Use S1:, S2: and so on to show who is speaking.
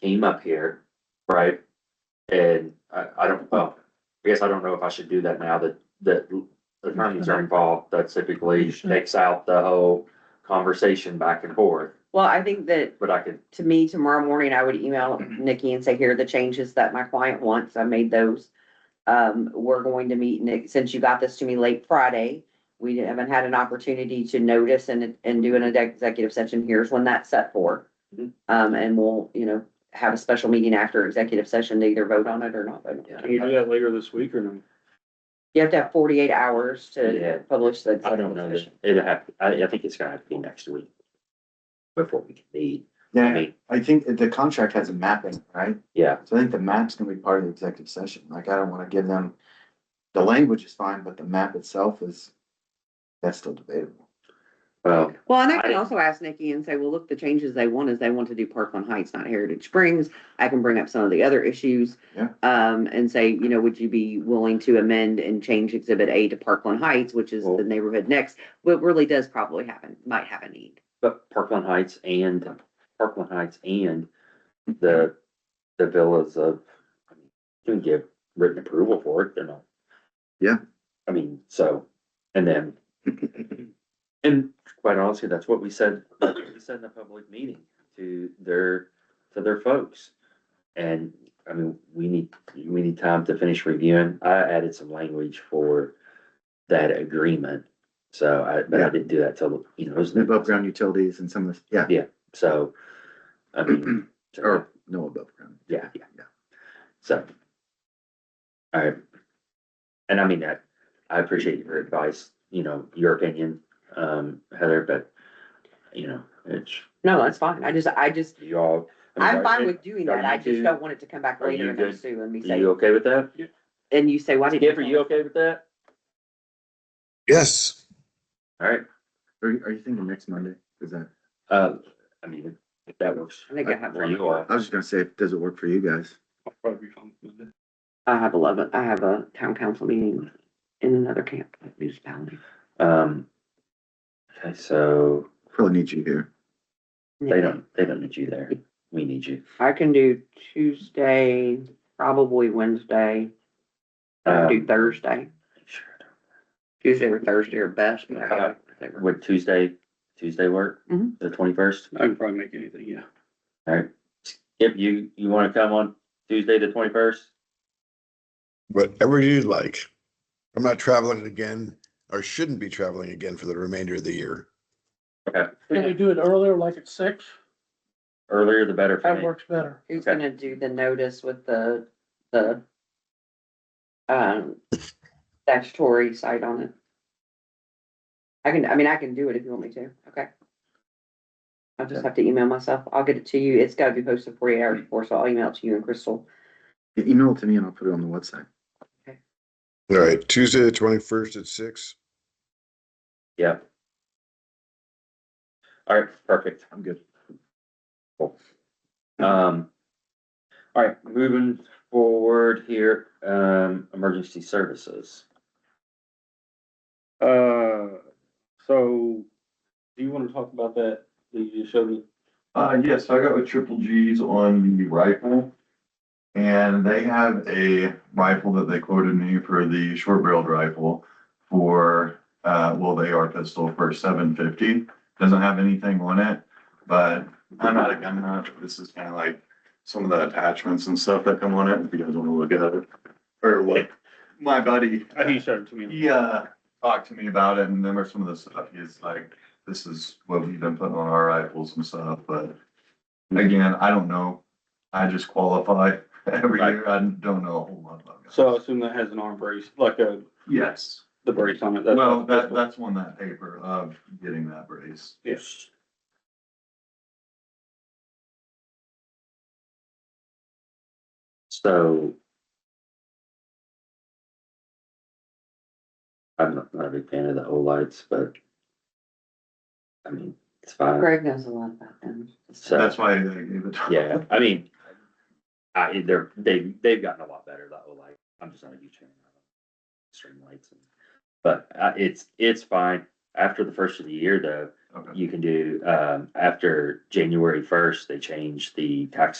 S1: came up here, right? And I, I don't, well, I guess I don't know if I should do that now that, that attorneys are involved. That typically takes out the whole conversation back and forth,
S2: Well, I think that
S1: but I could,
S2: to me, tomorrow morning, I would email Nikki and say, here are the changes that my client wants. I made those. Um, we're going to meet, Nick, since you got this to me late Friday, we haven't had an opportunity to notice and, and do an executive session. Here's when that's set for.
S1: Mhm.
S2: Um, and we'll, you know, have a special meeting after executive session to either vote on it or not vote on it.
S3: Can you do that later this week or no?
S2: You have to have forty-eight hours
S1: Yeah.
S2: to publish the.
S1: I don't know. that- It'll have, I, I think it's gonna have to be next week. Before we can meet. I
S4: Yeah,
S1: mean,
S4: I think the contract has a mapping, right?
S1: yeah,
S4: So I think the map's gonna be part of the executive session. Like, I don't wanna give them, the language is fine, but the map itself is, that's still debatable.
S1: well,
S2: Well, and I can also ask Nikki and say, well, look, the changes they want is they want to do Parkland Heights, not Heritage Springs. I can bring up some of the other issues.
S4: Yeah.
S2: Um, and say, you know, would you be willing to amend and change Exhibit A to Parkland Heights, which is
S1: Well-
S2: the neighborhood next? What really does probably happen, might have a need.
S1: but Parkland Heights and, Parkland Heights and the, the villas of, I mean, you can give written approval for it, they're not.
S4: Yeah.
S1: I mean, so, and then, and quite honestly, that's what we said, that's what we said in the public meeting to their, to their folks. And, I mean, we need, we need time to finish reviewing. I added some language for that agreement. So I, but I didn't do that till, you know, it was.
S4: The above ground utilities and some of the, yeah,
S1: So, I mean, so-
S4: or no above ground.
S1: yeah, yeah, yeah. So. All right. And I mean that, I appreciate your advice, you know, your opinion, um, Heather, but, you know, it's,
S2: No, that's fine. I just, I just,
S1: you all. I mean,
S2: I'm
S1: are-
S2: fine with doing
S1: are
S2: that. I
S1: you two-
S2: just don't want it to come back
S1: are you
S2: later
S1: good?
S2: and sue and be
S1: Are
S2: say,
S1: you okay with that?
S2: and you say, why didn't?
S1: Skip, are
S2: tell
S1: you
S2: us?"
S1: okay with that?
S5: Yes.
S1: All right,
S4: Are, you- are you thinking next Monday? Is that,
S1: um, I mean, if that works
S2: I think I have
S1: for
S2: one.
S1: you all.
S4: I was just gonna say, does it work for you guys?
S3: I'll probably be fine with it.
S2: I have eleven, I have a town council meeting in another camp, municipality.
S1: Um. Okay, so
S4: Probably need you here.
S1: they don't, they don't need you there. We need you.
S2: I can do Tuesday, probably Wednesday, I can do
S1: Um,
S2: Thursday,
S1: Sure.
S2: Tuesday or Thursday or best. but I
S1: Uh,
S2: gotta- whatever.
S1: Would Tuesday, Tuesday work?
S2: Mhm.
S1: The twenty-first?
S3: I can probably make anything, yeah.
S1: If you, you wanna come on Tuesday the twenty-first?
S5: Whatever you like. I'm not traveling again or shouldn't be traveling again for the remainder of the year.
S6: Can we do it earlier, like at six?
S1: Earlier the better for
S6: That
S1: me.
S6: works better.
S2: Who's
S1: okay.
S2: gonna do the notice with the, the um, statutory site on it? I can, I mean, I can do it if you want me to, okay? I'll just have to email myself. I'll get it to you. It's gotta be posted forty-eight hours before, so I'll email it to you and Crystal.
S4: Email it to me and I'll put it on the website.
S5: All right, Tuesday, the twenty-first at six.
S1: Yeah. All right, perfect.
S4: I'm good.
S1: Um. All right, moving forward here, um, emergency services.
S3: Uh, so, do you wanna talk about that, that you just showed me?
S7: Uh, yes, I got with triple G's on the rifle. And they have a rifle that they quoted me for the short barreled rifle for, uh, well, they are pistol for seven fifty. Doesn't have anything on it, but I'm not a gun nut. This is kind of like some of the attachments and stuff that come on it, if you guys want to look at it. Or what, my buddy,
S3: He showed it to me.
S7: he uh talked to me about it and then there's some of the stuff he's like, this is what we've been putting on our rifles and stuff, but again, I don't know. I just qualify every
S1: Right.
S7: year. I don't know a whole lot about guns.
S3: So I assume that has an arm brace, like a,
S7: Yes,
S3: the brace on it. that's-
S7: well, that that's on that paper of getting that brace.
S3: Yes.
S1: So. I'm not, not a big fan of the O lights, but. I mean, it's fine,
S2: Greg knows a lot about them.
S1: so.
S7: That's why I gave it. to
S1: Yeah, I mean, I, they're, they, they've gotten a lot better that whole like, I'm just not a huge fan of them. String lights. and- But, uh, it's, it's fine. After the first of the year though,
S7: Okay.
S1: you can do, um, after January first, they change the tax